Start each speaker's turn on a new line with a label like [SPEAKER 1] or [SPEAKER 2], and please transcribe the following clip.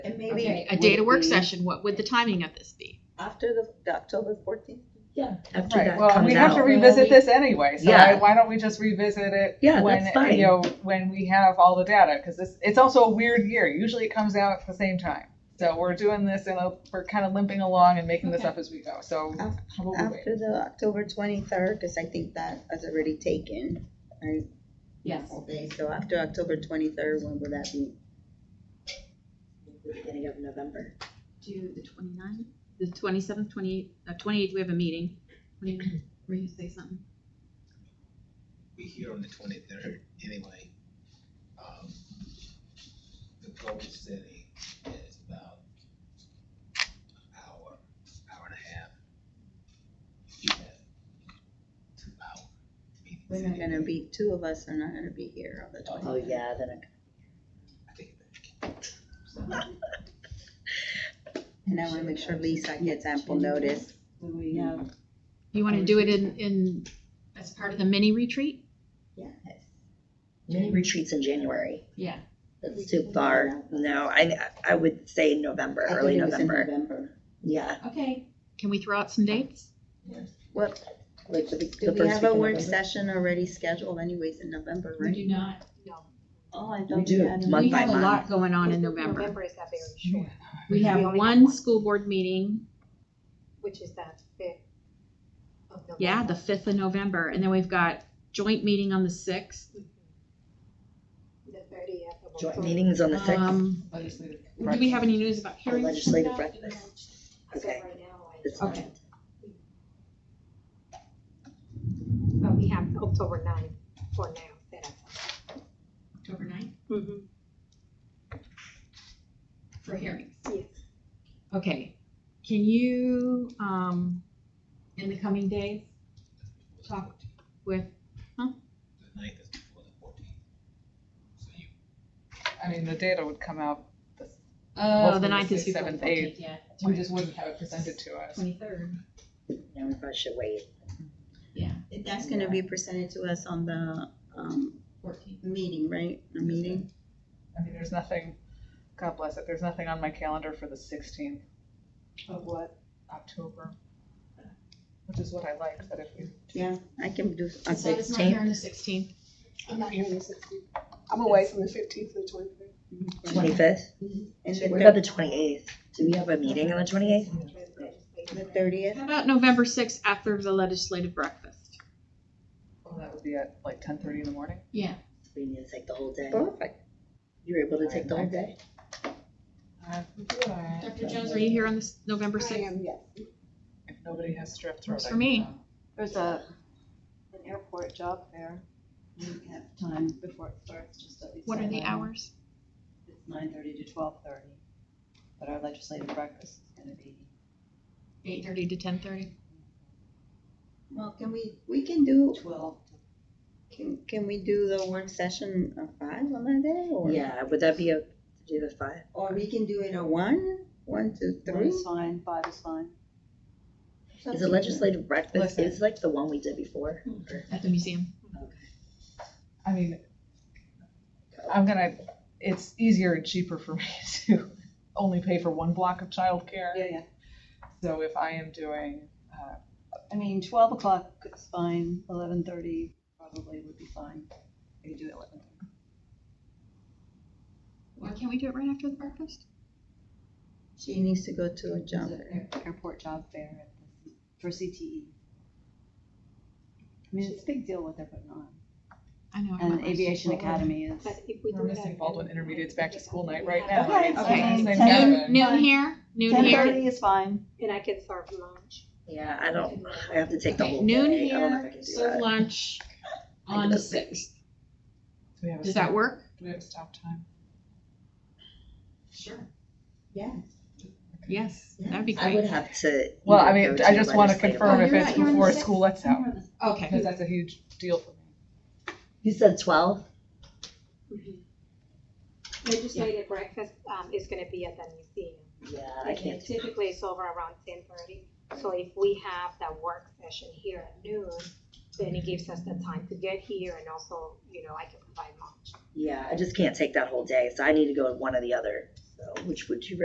[SPEAKER 1] Okay,
[SPEAKER 2] meeting.
[SPEAKER 1] a date
[SPEAKER 2] would
[SPEAKER 1] of work
[SPEAKER 2] be
[SPEAKER 1] session, what would the timing of this be?
[SPEAKER 2] After the, the October fourteenth?
[SPEAKER 3] after
[SPEAKER 4] Right,
[SPEAKER 3] that
[SPEAKER 4] well, and
[SPEAKER 3] comes
[SPEAKER 4] we have to
[SPEAKER 3] out.
[SPEAKER 4] revisit this anyway, so
[SPEAKER 3] Yeah.
[SPEAKER 4] I- why don't we just revisit it?
[SPEAKER 3] Yeah,
[SPEAKER 4] when,
[SPEAKER 3] that's fine.
[SPEAKER 4] You know, when we have all the data, because this, it's also a weird year, usually it comes out at the same time. So we're doing this and we're kind of limping along and making this
[SPEAKER 1] Okay.
[SPEAKER 4] up as we go, so
[SPEAKER 2] Af-
[SPEAKER 4] how about we wait?
[SPEAKER 2] After the October twenty-third, because I think that has already taken, right?
[SPEAKER 1] Yes.
[SPEAKER 2] All day, so after October twenty-third, when would that be? Beginning of November.
[SPEAKER 1] Do the twenty-ninth, the twenty-seventh, twenty-eighth, uh, twenty-eighth, we have a meeting. What do you- Were you gonna say something?
[SPEAKER 5] be here on the twenty-third anyway. Um, The goal setting is about hour, hour and a half. You have two hour meetings.
[SPEAKER 2] We're not gonna be, two of us are not gonna be here on the
[SPEAKER 3] Oh,
[SPEAKER 2] twenty.
[SPEAKER 3] yeah, then I-
[SPEAKER 5] I take it back.
[SPEAKER 2] And I wanna make sure Lisa gets ample notice.
[SPEAKER 6] We have,
[SPEAKER 1] Mm. You wanna do it in, in, as part of the mini retreat?
[SPEAKER 2] Yes.
[SPEAKER 3] mini retreats in January.
[SPEAKER 1] Yeah.
[SPEAKER 3] That's too far. No, I, I would say November,
[SPEAKER 2] I
[SPEAKER 3] early
[SPEAKER 2] think it was in
[SPEAKER 3] November.
[SPEAKER 2] November.
[SPEAKER 3] Yeah.
[SPEAKER 1] Okay. Can we throw out some dates?
[SPEAKER 2] What,
[SPEAKER 3] like the- the
[SPEAKER 2] do we
[SPEAKER 3] first
[SPEAKER 2] have a
[SPEAKER 3] week in
[SPEAKER 2] work
[SPEAKER 3] November.
[SPEAKER 2] session already scheduled anyways in November, right?
[SPEAKER 1] not, no.
[SPEAKER 2] Oh, I
[SPEAKER 3] We
[SPEAKER 2] thought we
[SPEAKER 3] do,
[SPEAKER 2] had.
[SPEAKER 3] month
[SPEAKER 1] We
[SPEAKER 3] by
[SPEAKER 1] have a
[SPEAKER 3] month.
[SPEAKER 1] lot going on in November.
[SPEAKER 6] November is that very short,
[SPEAKER 1] We
[SPEAKER 6] We
[SPEAKER 1] have
[SPEAKER 6] only have
[SPEAKER 1] one
[SPEAKER 6] one.
[SPEAKER 1] school board meeting,
[SPEAKER 6] which is that fifth of November.
[SPEAKER 1] yeah, the fifth of November, and then we've got joint meeting on the sixth.
[SPEAKER 6] The thirtieth of October.
[SPEAKER 3] Joint meetings on the sixth,
[SPEAKER 1] Um,
[SPEAKER 4] Legislative
[SPEAKER 1] do we have
[SPEAKER 4] breakfast.
[SPEAKER 1] any news about hearings?
[SPEAKER 3] legislative breakfast.
[SPEAKER 6] So
[SPEAKER 3] Okay.
[SPEAKER 6] right now, I
[SPEAKER 3] It's
[SPEAKER 6] don't-
[SPEAKER 1] Okay.
[SPEAKER 6] But oh, we have October ninth for now, set up.
[SPEAKER 1] October ninth
[SPEAKER 6] Mm-hmm.
[SPEAKER 1] for hearings.
[SPEAKER 6] Yes.
[SPEAKER 1] Okay, can you, um, in the coming days, talk with,
[SPEAKER 5] The ninth is before the fourteenth. So you,
[SPEAKER 4] I mean, the data would come out,
[SPEAKER 1] oh, the
[SPEAKER 4] Hopefully
[SPEAKER 1] ninth is
[SPEAKER 4] it's the
[SPEAKER 1] before the
[SPEAKER 4] seventh, eighth.
[SPEAKER 1] fourteenth, yeah.
[SPEAKER 4] we just wouldn't have it presented to us.
[SPEAKER 1] Twenty-third.
[SPEAKER 3] Now we probably should wait.
[SPEAKER 2] That's gonna be presented to us on the, um,
[SPEAKER 1] Fourteenth.
[SPEAKER 2] meeting, right? The meeting?
[SPEAKER 4] I mean, there's nothing, God bless it, there's nothing on my calendar for the sixteenth of what, October? Which is what I like, that if we,
[SPEAKER 2] Yeah, I can do, on
[SPEAKER 1] So it's not
[SPEAKER 2] sixteen.
[SPEAKER 1] here on the sixteenth.
[SPEAKER 7] I'm not here on the 16th. I'm away from the 15th to the 23rd.
[SPEAKER 3] Twenty-fifth?
[SPEAKER 2] And
[SPEAKER 3] What about
[SPEAKER 2] the
[SPEAKER 3] the twenty-eighth? Do we have a meeting on the twenty-eighth?
[SPEAKER 2] thirtieth,
[SPEAKER 1] How about November sixth after the legislative breakfast?
[SPEAKER 4] well, Oh, that would be at like ten thirty in the morning?
[SPEAKER 1] Yeah.
[SPEAKER 3] We need to take the whole day.
[SPEAKER 2] perfect.
[SPEAKER 3] You were able to take the whole day?
[SPEAKER 1] Dr. Jones, are you here on this November sixth?
[SPEAKER 7] yes.
[SPEAKER 4] If nobody has strep throat.
[SPEAKER 1] Works
[SPEAKER 4] I
[SPEAKER 1] for
[SPEAKER 4] can uh,
[SPEAKER 1] me.
[SPEAKER 4] go.
[SPEAKER 7] There's a, an airport job fair. We have time before it starts, just at least.
[SPEAKER 1] What are the
[SPEAKER 7] seven.
[SPEAKER 1] hours?
[SPEAKER 7] It's nine thirty to twelve thirty, but our legislative breakfast is gonna be.
[SPEAKER 1] Eight thirty to ten thirty?
[SPEAKER 2] Well, can we, we can do,
[SPEAKER 7] Twelve.
[SPEAKER 2] can, can we do the work session at five on that day or?
[SPEAKER 3] Yeah, would that be a, do the five?
[SPEAKER 2] Or we can do it at one, one to
[SPEAKER 7] One
[SPEAKER 2] three?
[SPEAKER 7] is fine, five is fine.
[SPEAKER 3] Is the legislative breakfast,
[SPEAKER 4] Listen.
[SPEAKER 3] is like the one we did before?
[SPEAKER 1] At the museum.
[SPEAKER 4] I mean, I'm gonna, it's easier and cheaper for me to only pay for one block of childcare.
[SPEAKER 7] Yeah, yeah.
[SPEAKER 4] So if I am doing, uh,
[SPEAKER 7] I mean, twelve o'clock is fine, eleven thirty probably would be fine. We could do it eleven thirty.
[SPEAKER 1] Why can't we do it right after the breakfast?
[SPEAKER 2] She needs to go to a job
[SPEAKER 7] There's
[SPEAKER 2] fair.
[SPEAKER 7] an air- Airport job fair at the C- for CTE. I mean, it's a big deal what they're putting on.
[SPEAKER 1] I know. I went
[SPEAKER 7] And
[SPEAKER 1] last
[SPEAKER 7] Aviation
[SPEAKER 1] year.
[SPEAKER 7] Academy is.
[SPEAKER 6] But if we do
[SPEAKER 4] we're
[SPEAKER 6] it
[SPEAKER 4] missing
[SPEAKER 6] at-
[SPEAKER 4] Baldwin Intermediate's back to school night right
[SPEAKER 6] Yeah.
[SPEAKER 4] now.
[SPEAKER 7] Okay,
[SPEAKER 4] It's
[SPEAKER 1] okay.
[SPEAKER 4] the same
[SPEAKER 7] Ten-
[SPEAKER 4] gathering.
[SPEAKER 1] Noon here, noon
[SPEAKER 7] Ten
[SPEAKER 1] here.
[SPEAKER 7] thirty is fine.
[SPEAKER 6] And I can serve lunch.
[SPEAKER 3] Yeah, I don't, I have to take the
[SPEAKER 1] Okay,
[SPEAKER 3] whole day.
[SPEAKER 1] noon
[SPEAKER 3] I don't know if I
[SPEAKER 1] here,
[SPEAKER 3] can do
[SPEAKER 1] serve
[SPEAKER 3] that.
[SPEAKER 1] lunch
[SPEAKER 3] I can
[SPEAKER 1] on the
[SPEAKER 3] just-
[SPEAKER 1] sixth.
[SPEAKER 4] Do we have a
[SPEAKER 1] Does
[SPEAKER 4] stop-
[SPEAKER 1] that work?
[SPEAKER 4] Do we have a stop time?
[SPEAKER 1] Sure.
[SPEAKER 2] Yeah.
[SPEAKER 1] Yes, that'd be
[SPEAKER 3] I would
[SPEAKER 1] great.
[SPEAKER 3] have to.
[SPEAKER 4] Well, I
[SPEAKER 3] either
[SPEAKER 4] mean,
[SPEAKER 3] go
[SPEAKER 4] I
[SPEAKER 3] to
[SPEAKER 4] just wanna
[SPEAKER 3] legislative-
[SPEAKER 4] confirm
[SPEAKER 1] Oh,
[SPEAKER 4] if
[SPEAKER 1] you're
[SPEAKER 4] it's
[SPEAKER 1] right, you're on the
[SPEAKER 4] before
[SPEAKER 1] sixth.
[SPEAKER 4] school lets out, because
[SPEAKER 1] Okay,
[SPEAKER 4] that's a huge deal for me.
[SPEAKER 3] You said twelve?
[SPEAKER 6] mm-hmm. Legislative breakfast, um, is gonna be at the museum.
[SPEAKER 3] Yeah, I can't. do-
[SPEAKER 6] Typically, it's over around ten thirty, so if we have that work session here at noon, then it gives us the time to get here and also, you know, I can provide lunch.
[SPEAKER 3] Yeah, I just can't take that whole day, so I need to go to one or the other, so, which would you